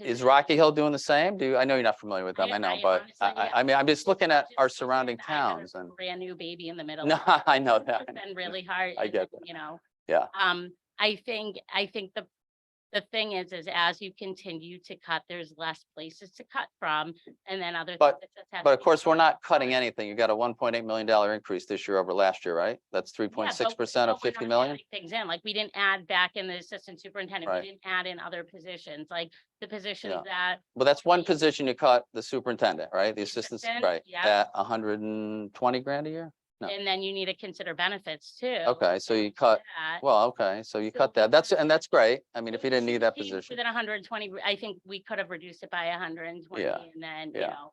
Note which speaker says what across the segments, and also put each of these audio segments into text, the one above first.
Speaker 1: is Rocky Hill doing the same? Do, I know you're not familiar with them,
Speaker 2: I-
Speaker 1: I know,
Speaker 2: I
Speaker 1: but
Speaker 2: honestly,
Speaker 1: I, I,
Speaker 2: yeah.
Speaker 1: I mean, I'm just looking at
Speaker 2: Just
Speaker 1: our
Speaker 2: because
Speaker 1: surrounding
Speaker 2: I had a
Speaker 1: towns and,
Speaker 2: Brand new baby in the middle.
Speaker 1: no, I know that.
Speaker 2: It's been really hard.
Speaker 1: I
Speaker 2: and,
Speaker 1: get that.
Speaker 2: You know?
Speaker 1: Yeah.
Speaker 2: Um, I think, I think the, the thing is, is as you continue to cut, there's less places to cut from and then other.
Speaker 1: But-
Speaker 2: things that have
Speaker 1: But
Speaker 2: to
Speaker 1: of
Speaker 2: be
Speaker 1: course, we're
Speaker 2: cut
Speaker 1: not
Speaker 2: out.
Speaker 1: cutting anything. You got a one point eight million dollar increase this year over last year, right? That's three
Speaker 2: Yeah,
Speaker 1: point
Speaker 2: but-
Speaker 1: six percent of
Speaker 2: but we're
Speaker 1: fifty
Speaker 2: not
Speaker 1: million?
Speaker 2: adding Things in, like we didn't add back in the assistant superintendent,
Speaker 1: Right.
Speaker 2: we didn't add in other positions, like the
Speaker 1: Yeah.
Speaker 2: positions that
Speaker 1: Well, that's one
Speaker 2: Right.
Speaker 1: position you cut, the superintendent, right? The assistants,
Speaker 2: Assistant,
Speaker 1: right?
Speaker 2: yeah.
Speaker 1: At hundred and twenty grand a year? No.
Speaker 2: And then you need to consider benefits too.
Speaker 1: Okay, so you
Speaker 2: and
Speaker 1: cut,
Speaker 2: that.
Speaker 1: well, okay, so you
Speaker 2: So
Speaker 1: cut
Speaker 2: we
Speaker 1: that. That's,
Speaker 2: cut-
Speaker 1: and that's great. I mean, if
Speaker 2: If
Speaker 1: you didn't
Speaker 2: she
Speaker 1: need that
Speaker 2: came
Speaker 1: position,
Speaker 2: Within hundred and twenty, I think we could have reduced it by hundred and twenty
Speaker 1: Yeah,
Speaker 2: and then, you
Speaker 1: yeah.
Speaker 2: know.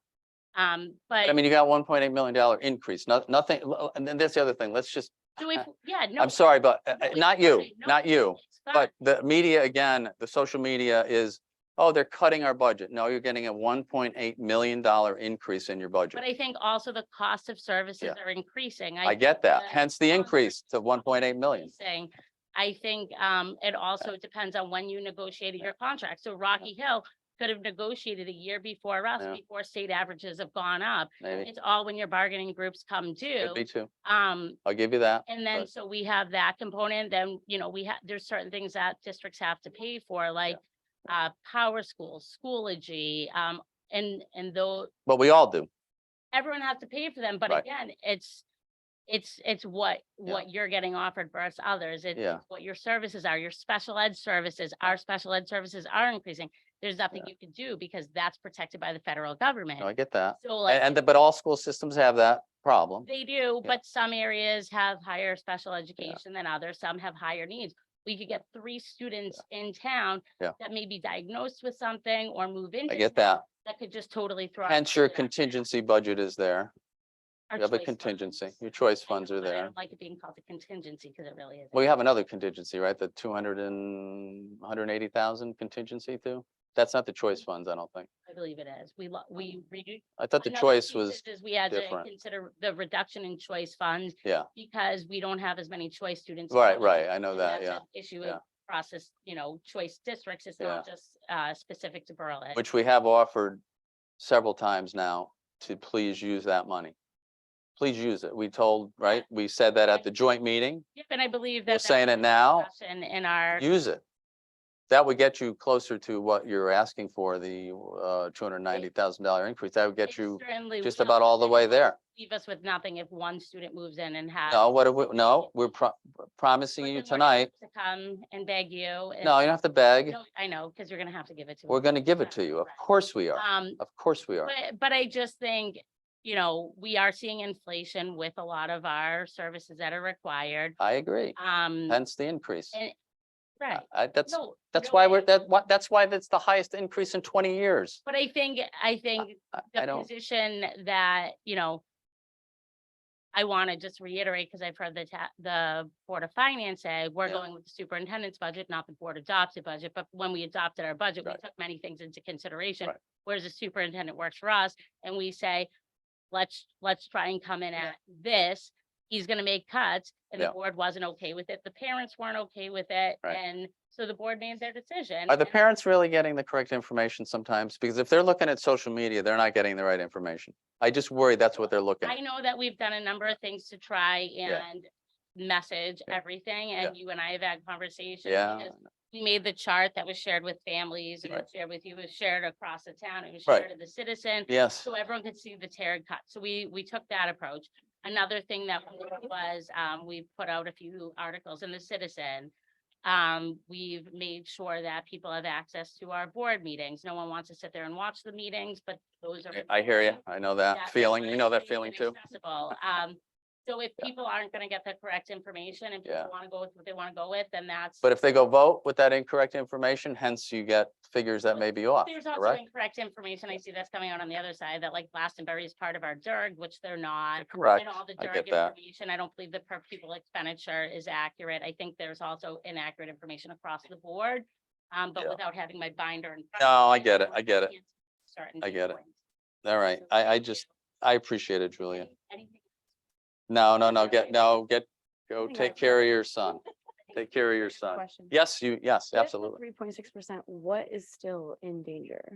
Speaker 2: Um, but,
Speaker 1: I mean, you got one point eight million dollar increase, no- nothing, and then that's the other thing. Let's just,
Speaker 2: so if, yeah, no.
Speaker 1: I'm sorry, but uh,
Speaker 2: no,
Speaker 1: uh,
Speaker 2: it's
Speaker 1: not you,
Speaker 2: fine. No,
Speaker 1: not you.
Speaker 2: it's fine.
Speaker 1: But the media, again, the social media is, oh, they're cutting our budget. No, you're getting a one point eight million dollar increase in your budget.
Speaker 2: But I think also the cost of services are increasing.
Speaker 1: I get that,
Speaker 2: the
Speaker 1: hence the
Speaker 2: long-term
Speaker 1: increase to one point eight million.
Speaker 2: Saying, I think, um, it also depends on when you negotiated your contract. So Rocky Hill could have negotiated a year before us,
Speaker 1: Yeah.
Speaker 2: before state averages have gone up.
Speaker 1: Maybe,
Speaker 2: It's all when your bargaining groups come
Speaker 1: could
Speaker 2: due.
Speaker 1: be two.
Speaker 2: Um,
Speaker 1: I'll give you that.
Speaker 2: And then,
Speaker 1: But-
Speaker 2: so we have that component, then, you know, we have, there's certain things that districts have to pay for, like uh, power schools, Schoology, um, and, and though,
Speaker 1: But we all do.
Speaker 2: everyone has to pay for them, but
Speaker 1: Right.
Speaker 2: again, it's, it's, it's what,
Speaker 1: Yeah.
Speaker 2: what you're getting offered versus others, it's
Speaker 1: Yeah.
Speaker 2: it's what your services are, your special ed services, our special ed services are increasing. There's nothing you can do because that's protected by the federal government.
Speaker 1: No, I get that.
Speaker 2: So
Speaker 1: And,
Speaker 2: like,
Speaker 1: and, the- but all school systems have that problem.
Speaker 2: they do,
Speaker 1: Yeah.
Speaker 2: but some areas have higher special education than others, some have higher needs. We could get three students in town
Speaker 1: Yeah.
Speaker 2: that may be diagnosed with something or move into.
Speaker 1: I get
Speaker 2: town
Speaker 1: that.
Speaker 2: That could just totally throw. our
Speaker 1: Hence your
Speaker 2: student
Speaker 1: contingency budget is there.
Speaker 2: out, our
Speaker 1: You have a
Speaker 2: choice
Speaker 1: contingency.
Speaker 2: funds.
Speaker 1: Your choice
Speaker 2: I
Speaker 1: funds
Speaker 2: know,
Speaker 1: are
Speaker 2: but I
Speaker 1: there.
Speaker 2: don't Like it being called a contingency because it really is.
Speaker 1: Well, you have another contingency, right? The two hundred and, one hundred and eighty thousand contingency too? That's not the choice funds, I don't think.
Speaker 2: I believe it is. We, lo- we reduce.
Speaker 1: I thought the
Speaker 2: another
Speaker 1: choice
Speaker 2: piece
Speaker 1: was,
Speaker 2: is We had to
Speaker 1: different.
Speaker 2: consider the reduction in choice funds.
Speaker 1: Yeah.
Speaker 2: Because we don't have as many choice students.
Speaker 1: right,
Speaker 2: going
Speaker 1: right. I know
Speaker 2: and
Speaker 1: that,
Speaker 2: that's
Speaker 1: yeah.
Speaker 2: an Issue
Speaker 1: yeah.
Speaker 2: of process, you know, choice districts, it's not just uh specific to Berlin.
Speaker 1: Which we have offered several times now to please use that money. Please use it. We told, right? We said that at the joint meeting.
Speaker 2: Yep, And I believe that.
Speaker 1: We're
Speaker 2: that
Speaker 1: saying
Speaker 2: was
Speaker 1: it
Speaker 2: a
Speaker 1: now.
Speaker 2: discussion In our,
Speaker 1: Use it. That would get you closer to what you're asking for, the uh two hundred and ninety thousand dollar increase. That would
Speaker 2: It
Speaker 1: get you
Speaker 2: certainly
Speaker 1: just
Speaker 2: will,
Speaker 1: about all the
Speaker 2: and
Speaker 1: way
Speaker 2: it
Speaker 1: there.
Speaker 2: won't Leave us with nothing if one student moves in and has.
Speaker 1: No, what, do we- no, we're pro- promising
Speaker 2: but
Speaker 1: you
Speaker 2: then we're gonna
Speaker 1: tonight.
Speaker 2: have To come and beg you. and-
Speaker 1: No, you don't have to beg.
Speaker 2: No, I know, because you're gonna have to give it to.
Speaker 1: We're
Speaker 2: us.
Speaker 1: going to give it to you. Of
Speaker 2: Right.
Speaker 1: course we are.
Speaker 2: Um,
Speaker 1: Of course we are.
Speaker 2: but, but I just think, you know, we are seeing inflation with a lot of our services that are required.
Speaker 1: I agree.
Speaker 2: Um,
Speaker 1: Hence the increase.
Speaker 2: and- right.
Speaker 1: I, uh, that's,
Speaker 2: No,
Speaker 1: that's
Speaker 2: no,
Speaker 1: why
Speaker 2: I-
Speaker 1: we're, that, why- that's why that's the highest increase in twenty years.
Speaker 2: But I think, I think
Speaker 1: I- I
Speaker 2: the
Speaker 1: don't,
Speaker 2: position that, you know, I want to just reiterate, because I've heard the ta- the Board of Finance say, we're
Speaker 1: Yeah.
Speaker 2: going with the superintendent's budget, not the board adopted budget, but when we adopted our budget, we
Speaker 1: Right.
Speaker 2: took many things into consideration.
Speaker 1: Right.
Speaker 2: Whereas the superintendent works for us, and we say, let's, let's try and come in
Speaker 1: Yeah.
Speaker 2: at this. He's gonna make cuts, and the
Speaker 1: Yeah.
Speaker 2: board wasn't okay with it, the parents weren't okay with it,
Speaker 1: Right.
Speaker 2: and so the board made their decision.
Speaker 1: are the
Speaker 2: and
Speaker 1: parents really getting the correct information sometimes? Because if they're looking at social media, they're not getting the right information. I just worry that's what they're looking.
Speaker 2: I
Speaker 1: at.
Speaker 2: know that we've done a number of things to try
Speaker 1: Yeah.
Speaker 2: and message
Speaker 1: Yeah.
Speaker 2: everything, and you and I have had conversations.
Speaker 1: Yeah,
Speaker 2: because We made the chart that was shared with families, and
Speaker 1: Right.
Speaker 2: shared with you, it was shared across the town, it was
Speaker 1: Right.
Speaker 2: shared to the citizen,
Speaker 1: yes,
Speaker 2: so everyone could see the tear cut, so we, we took that approach. Another thing that we did was, um, we put out a few articles in the citizen. Um, we've made sure that people have access to our board meetings, no one wants to sit there and watch the meetings, but those are.
Speaker 1: I hear you. I know that
Speaker 2: That
Speaker 1: feeling.
Speaker 2: is
Speaker 1: You know that
Speaker 2: free
Speaker 1: feeling
Speaker 2: and
Speaker 1: too.
Speaker 2: accessible. Um, so if
Speaker 1: Yeah.
Speaker 2: people aren't gonna get the correct information and
Speaker 1: Yeah.
Speaker 2: people wanna go with what they wanna go with, then that's.
Speaker 1: But if they go vote with that incorrect information, hence you get figures that may be off,
Speaker 2: There's also
Speaker 1: correct?
Speaker 2: incorrect information. I see that's coming out on the other side, that like Glastonbury is part of our DERG, which they're not.
Speaker 1: Correct.
Speaker 2: And all the
Speaker 1: I
Speaker 2: DERG
Speaker 1: get that.
Speaker 2: information, I don't believe the per pupil expenditure is accurate. I think there's also inaccurate information across the board. Um, but
Speaker 1: Yeah.
Speaker 2: without having my binder in. front
Speaker 1: No,
Speaker 2: of
Speaker 1: I
Speaker 2: me,
Speaker 1: get it. I
Speaker 2: don't
Speaker 1: get it.
Speaker 2: can't certain
Speaker 1: I get it.
Speaker 2: viewpoints.
Speaker 1: All right.
Speaker 2: So
Speaker 1: I, I
Speaker 2: thank
Speaker 1: just,
Speaker 2: you.
Speaker 1: I appreciate it, Julia.
Speaker 2: Any- anything-
Speaker 1: No, no, no,
Speaker 2: Okay.
Speaker 1: get, no, get, go
Speaker 2: Hang on.
Speaker 1: take care of your son. Take care of your son.
Speaker 3: Question.
Speaker 1: Yes, you, yes, absolutely.
Speaker 3: Three point six percent, what is still in danger?